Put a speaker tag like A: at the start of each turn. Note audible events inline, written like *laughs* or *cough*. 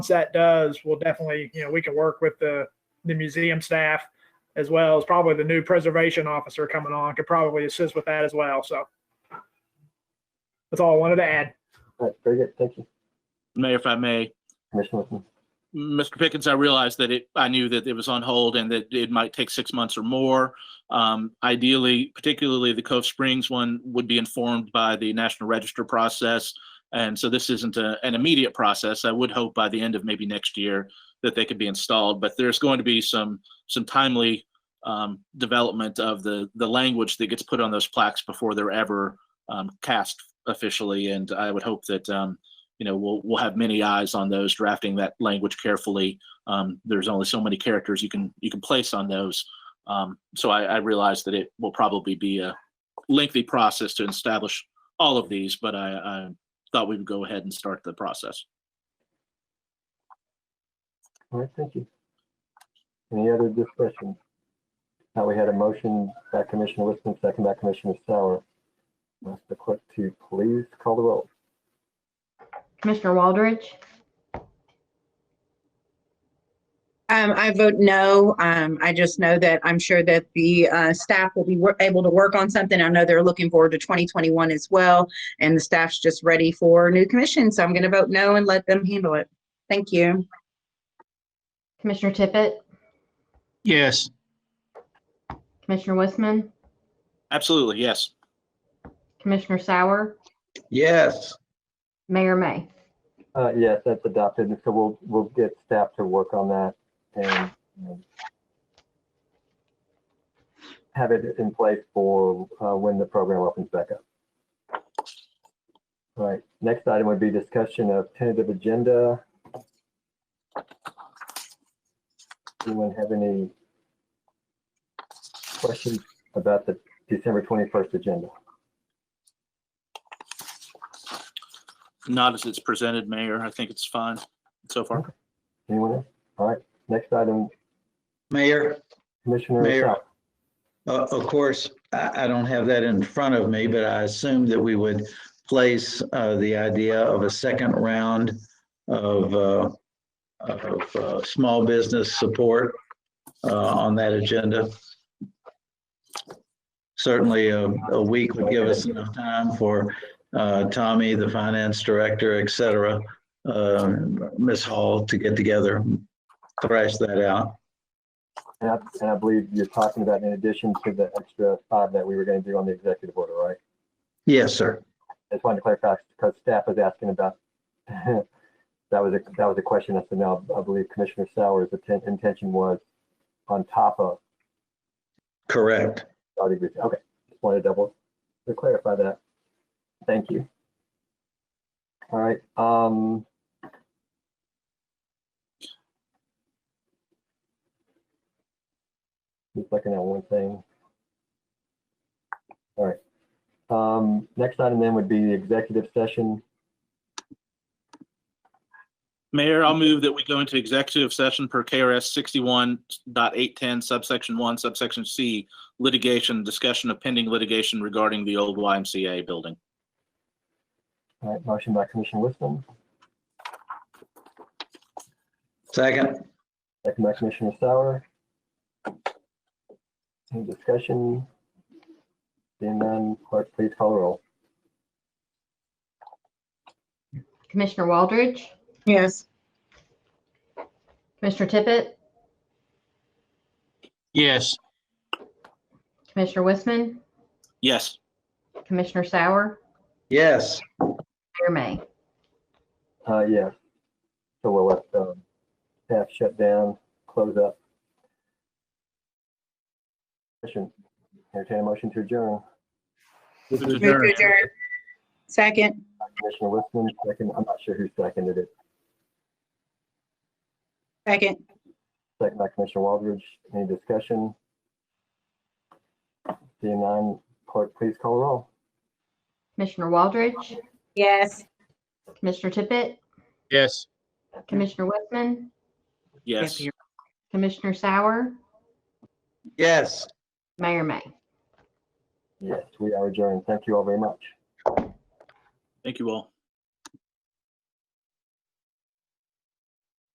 A: once that does, we'll definitely, you know, we can work with the, the museum staff as well as probably the new preservation officer coming on could probably assist with that as well. So that's all I wanted to add.
B: All right, very good. Thank you,
C: Mayor, if I may,
B: Commissioner Wilson.
C: Mr. Pickens, I realized that it, I knew that it was on hold and that it might take six months or more. Um, ideally, particularly the Cove Springs one would be informed by the National Register process. And so this isn't a, an immediate process. I would hope by the end of maybe next year that they could be installed, but there's going to be some, some timely um, development of the, the language that gets put on those plaques before they're ever um, cast officially. And I would hope that, um, you know, we'll, we'll have many eyes on those drafting that language carefully. Um, there's only so many characters you can, you can place on those. Um, so I, I realize that it will probably be a lengthy process to establish all of these, but I, I thought we would go ahead and start the process.
B: All right, thank you. Any other discussion? Now we had a motion by Commissioner Wilson, second by Commissioner Sauer. Ask the clerk to please call the roll.
D: Commissioner Waldridge,
E: Um, I vote no. Um, I just know that I'm sure that the, uh, staff will be wor- able to work on something. I know they're looking forward to 2021 as well. And the staff's just ready for new commission. So I'm going to vote no and let them handle it. Thank you.
D: Commissioner Tippett,
F: Yes,
D: Commissioner Wiseman,
C: Absolutely, yes.
D: Commissioner Sauer,
G: Yes,
D: Mayor May.
B: Uh, yes, that's adopted. And so we'll, we'll get staff to work on that and you know, have it in place for uh, when the program opens back up. All right, next item would be discussion of tentative agenda. Anyone have any questions about the December 21st agenda?
C: Not as it's presented, Mayor. I think it's fine so far.
B: Anyone? else? All right, next item,
G: Mayor,
B: Commissioner.
G: Mayor.
B: Sal-
G: uh, of course, I, I don't have that in front of me, but I assume that we would place uh, the idea of a second round of, uh, of uh, small business support uh, on that agenda. Certainly, a, a week would give us enough time for uh, Tommy, the finance director, et cetera, uh, Ms. Hall to get together, thrash that out.
B: And I, and I believe you're talking about in addition to the extra five that we were gonna do on the executive order, right?
G: Yes, sir.
B: I just wanted to clarify, because staff was asking about, *laughs* that was a, that was a question, I said, now, I believe Commissioner Sauer's atten- intention was on top of,
G: Correct.
B: I would agree. okay, just wanted to double, to clarify that. Thank you. All right, um. Just looking at one thing. All right. Um, next item then would be the executive session.
C: Mayor, I'll move that we go into executive session per KRS 61.810 subsection one subsection C litigation, discussion of pending litigation regarding the old YMCA building.
B: All right, motion by Commissioner Wisdom,
G: Second,
B: second by Commissioner Sauer. Any discussion? Seeing none, clerk, please call the roll.
D: Commissioner Waldridge,
E: Yes.
D: Commissioner Tippett,
F: yes,
D: Commissioner Wiseman,
C: Yes,
D: Commissioner Sauer,
G: yes,
D: Mayor May.
B: Uh, yes. So we'll let, um, staff shut down, close up. Motion, entertain a motion to adjourn.
C: Move to
E: Move to
C: adjourn.
E: adjourn. Second.
B: Commissioner Wisdom, second, I'm not sure who seconded it.
E: Second.
B: Second by Commissioner Waldridge, any discussion? Seeing none, clerk, please call the roll.
D: Commissioner Waldridge,
E: Yes.
D: Commissioner Tippett,
F: yes.
D: Commissioner Wiseman,
C: yes.
D: Commissioner Sauer,
G: yes.
D: Mayor May.
B: Yes, we are adjourned. Thank you all very much.
C: Thank you all.